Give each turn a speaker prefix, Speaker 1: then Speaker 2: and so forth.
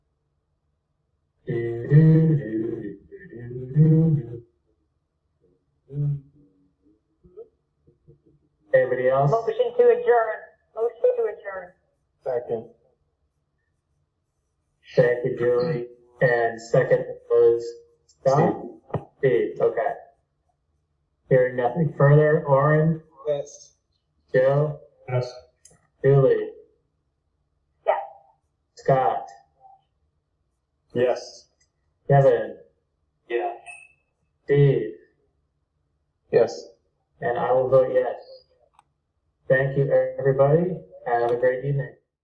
Speaker 1: Anybody else?
Speaker 2: Motion to adjourn. Motion to adjourn.
Speaker 1: Second. Thank you, Julie. And second was Scott? Steve, okay. Hearing nothing further, Orin,
Speaker 3: Yes.
Speaker 1: Joe,
Speaker 3: Yes.
Speaker 1: Julie,
Speaker 2: Yes.
Speaker 1: Scott,
Speaker 3: Yes.
Speaker 1: Kevin,
Speaker 3: Yeah.
Speaker 1: Steve,
Speaker 3: Yes.
Speaker 1: and I will vote yes. Thank you, everybody. Have a great evening.